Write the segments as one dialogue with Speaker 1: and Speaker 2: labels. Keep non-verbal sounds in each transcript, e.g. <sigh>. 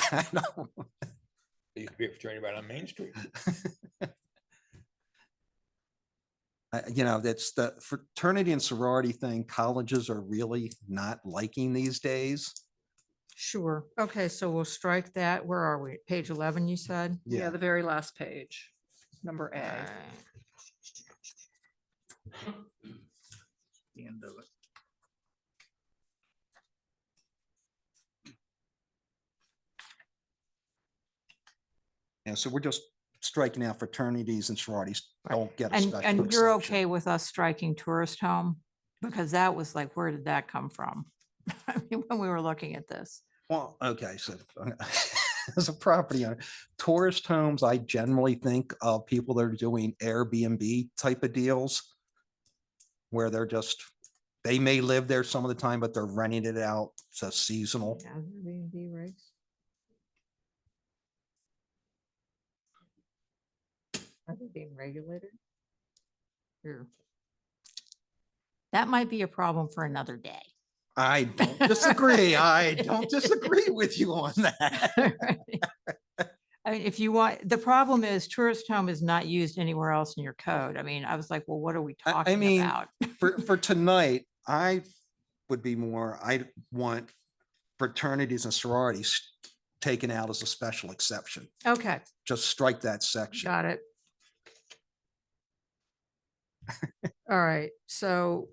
Speaker 1: <laughs> I know.
Speaker 2: You could be a fraternity right on Main Street.
Speaker 1: I- Uh, you know, that's the fraternity and sorority thing colleges are really not liking these days.
Speaker 3: Sure. Okay, so we'll strike that. Where are we? Page eleven, you said?
Speaker 1: Yeah.
Speaker 4: Yeah, the very last page, number A.
Speaker 3: Alright.
Speaker 5: the end of it.
Speaker 1: And so we're just striking out fraternities and sororities don't get a
Speaker 3: And,
Speaker 1: special.
Speaker 3: and you're
Speaker 1: exception.
Speaker 3: okay with us striking tourist home? Because that was like, where did that come from? <laughs> I mean, When we were looking at this.
Speaker 1: Well, okay, <laughs> so uh, as a property owner, tourist homes, I generally think of people that are doing Airbnb type of deals. Where they're just, they may live there some of the time, but they're renting it out, so seasonal.
Speaker 3: I think being regulated. Here. That might be a problem for another day.
Speaker 1: I don't disagree. I don't disagree with you on
Speaker 3: <laughs>
Speaker 1: that.
Speaker 3: Right. I mean, if you want, the problem is tourist home is not used anywhere else in your code. I mean, I was like, well, what are we
Speaker 1: I- I
Speaker 3: talking
Speaker 1: mean,
Speaker 3: about?
Speaker 1: For, for tonight, I would be more, I want fraternities and sororities taken out as a special exception.
Speaker 3: Okay,
Speaker 1: Just strike that section. <laughs>
Speaker 3: got it. All right, so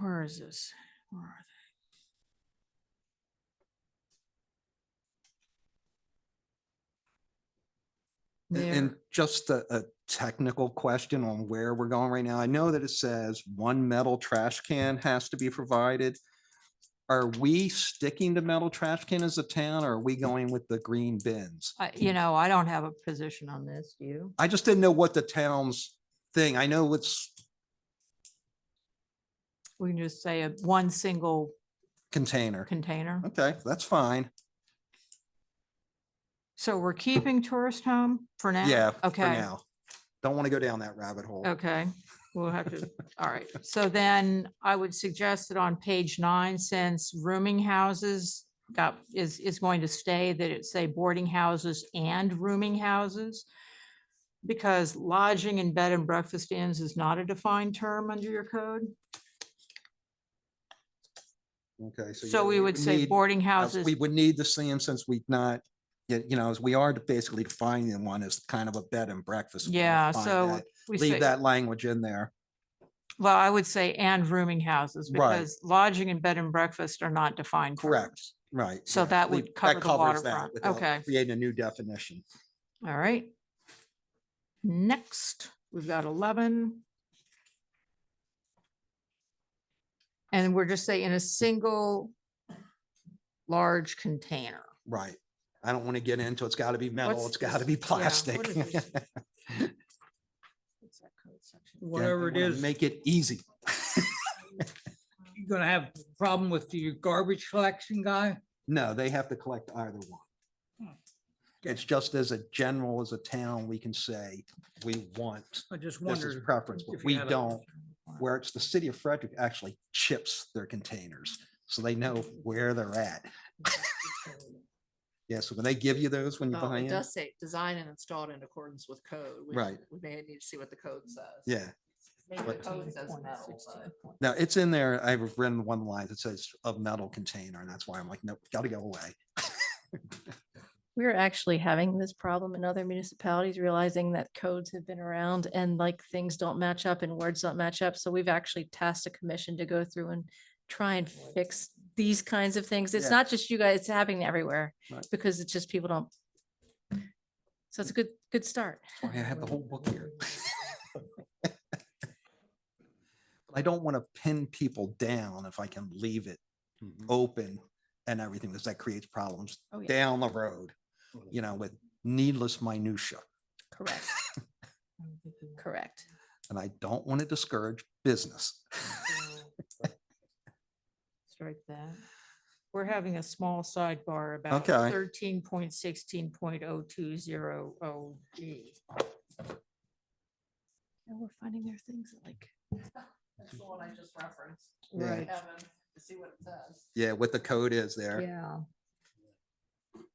Speaker 3: where is this? Where are they?
Speaker 1: And-
Speaker 3: There.
Speaker 1: And just a, a technical question on where we're going right now. I know that it says one metal trash can has to be provided. Are we sticking to metal trash can as a town or are we going with the green bins?
Speaker 3: I- You know, I don't have a position on this, do you?
Speaker 1: I just didn't know what the town's thing. I know it's
Speaker 3: We can just say a one single
Speaker 1: container.
Speaker 3: container.
Speaker 1: Okay, that's fine.
Speaker 3: So we're keeping tourist home for now?
Speaker 1: Yeah. for
Speaker 3: Okay,
Speaker 1: now. Don't want to go down that rabbit hole.
Speaker 3: okay. We'll
Speaker 1: <laughs>
Speaker 3: have to, all right. So then I would suggest that on page nine, since rooming houses got, is, is going to stay, that it say boarding houses and rooming houses. Because lodging and bed and breakfast inns is not a defined term under your code.
Speaker 1: Okay. you-
Speaker 3: So we would say
Speaker 1: need-
Speaker 3: boarding
Speaker 1: uh,
Speaker 3: houses.
Speaker 1: We would need to see them since we've not, y- you know, as we are basically defining one as kind of a bed and breakfast. we wanna
Speaker 3: Yeah,
Speaker 1: find
Speaker 3: so
Speaker 1: that-
Speaker 3: we say.
Speaker 1: Leave that language in there.
Speaker 3: Well, I would say and rooming houses
Speaker 1: Right.
Speaker 3: because lodging and bed and breakfast are not defined.
Speaker 1: Correct.
Speaker 3: terms.
Speaker 1: Right.
Speaker 3: So
Speaker 1: yeah,
Speaker 3: that would
Speaker 1: leave-
Speaker 3: cover the
Speaker 1: covers that
Speaker 3: waterfront,
Speaker 1: without
Speaker 3: okay.
Speaker 1: Creating a new definition.
Speaker 3: All right. Next, we've got eleven. And we're just saying a single large container.
Speaker 1: Right. I don't want to get into, it's got to be metal,
Speaker 3: What's
Speaker 1: it's got to
Speaker 3: this-
Speaker 1: be
Speaker 3: yeah, what is
Speaker 1: plastic. <laughs>
Speaker 3: this?
Speaker 1: Yeah,
Speaker 3: What's that code
Speaker 1: I
Speaker 3: section?
Speaker 5: Whatever it
Speaker 1: wanna
Speaker 5: is,
Speaker 1: Make it easy. <laughs>
Speaker 5: you're gonna have a problem with your garbage collection guy?
Speaker 1: No, they have to collect either one.
Speaker 5: Hmm.
Speaker 1: It's just as a general, as a town, we can say, we want,
Speaker 5: I just
Speaker 1: this is
Speaker 5: wondered.
Speaker 1: preference, but
Speaker 5: if you
Speaker 1: we
Speaker 5: had a-
Speaker 1: don't.
Speaker 3: <laughs>
Speaker 1: Where it's the city of Frederick actually chips their containers, so they know where they're at.
Speaker 3: Oh,
Speaker 1: Yeah, so when they give you those when you're
Speaker 4: Oh, It
Speaker 1: behind,
Speaker 4: does say, designed and installed in accordance with code. which
Speaker 1: Right.
Speaker 4: We may need to see what the code says.
Speaker 1: yeah.
Speaker 4: Maybe the
Speaker 1: but-
Speaker 4: code says metal, but.
Speaker 1: Now, it's in there, I've written one line that says a metal container, and that's why I'm like, nope, gotta go away.
Speaker 6: We're actually having this problem in other municipalities, realizing that codes have been around and like things don't match up and words don't match up. So we've actually tasked a commission to go through and try and fix these kinds of things.
Speaker 1: Yeah.
Speaker 6: It's not just you guys, it's happening everywhere
Speaker 1: Right. Mm.
Speaker 6: because it's just people don't. So it's a good, good start.
Speaker 1: Why I have the whole book here. <laughs> But I don't want to pin people down if I can leave it open and everything, because that creates problems
Speaker 6: Oh, yeah,
Speaker 1: down the road, you know, with needless minutia. <laughs>
Speaker 6: correct, correct.
Speaker 1: And I don't want to discourage business.
Speaker 3: <laughs> Strike that. We're having a small sidebar about
Speaker 1: Okay.
Speaker 3: thirteen point sixteen point oh two zero oh G.
Speaker 6: And we're finding there are things that, like,
Speaker 4: That's the one I just referenced.
Speaker 1: Yeah.
Speaker 4: Kevin, to see what it says.
Speaker 1: Yeah, what the code is there.
Speaker 3: Yeah,